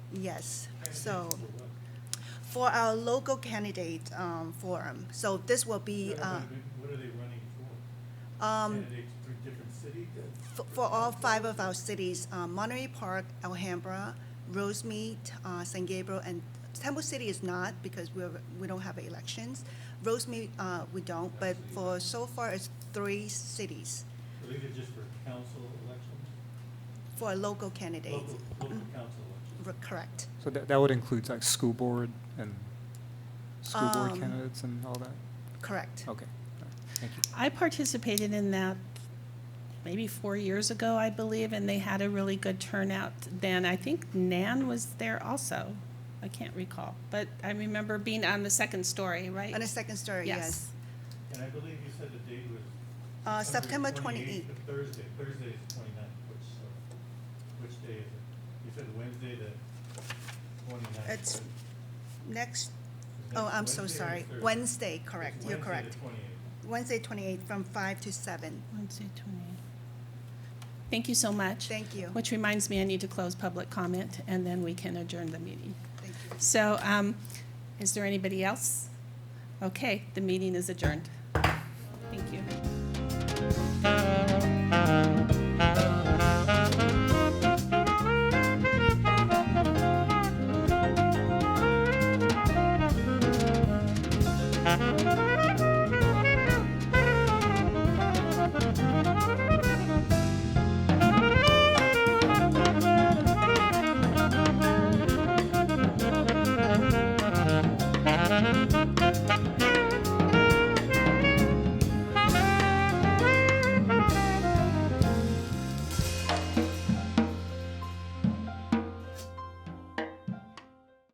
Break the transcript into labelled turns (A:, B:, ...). A: Yes, so for our local candidate um, forum, so this will be
B: What
A: uh,
B: are they- What are they running for?
A: um,
B: Candidates for different cities?
A: f- for all five of our cities, uh, Monterey Park, Alhambra, Rosemead, uh, San Gabriel, and Temple City is not because we're, we don't have elections. Rosemead, uh, we don't, but for so far it's three cities
B: I think it's just for council elections,
A: for local candidates.
B: local, local council elections.
A: R- Correct.
C: So that, that would include like school board and school board
A: Um,
C: candidates and all that?
A: Correct.
C: Okay, all right, thank you.
D: I participated in that maybe four years ago, I believe, and they had a really good turnout then. I think Nan was there also. I can't recall, but I remember being on the second story, right?
A: On the second story, yes.
D: Yes.
B: And I believe you said the date was.
A: Uh, September 28th.
B: 28th, Thursday, Thursday is the twenty-ninth, which, uh, which day is it? You said Wednesday, the twenty-ninth.
A: It's- Next, oh, I'm so sorry. Wednesday, correct, you're correct. Wednesday, 28th, from 5 to 7.
D: Wednesday, 28. Thank you so much.
A: Thank you.
D: Which reminds me, I need to close public comment, and then we can adjourn the meeting.
A: Thank you.
D: So, um, is there anybody else? Okay, the meeting is adjourned. Thank you.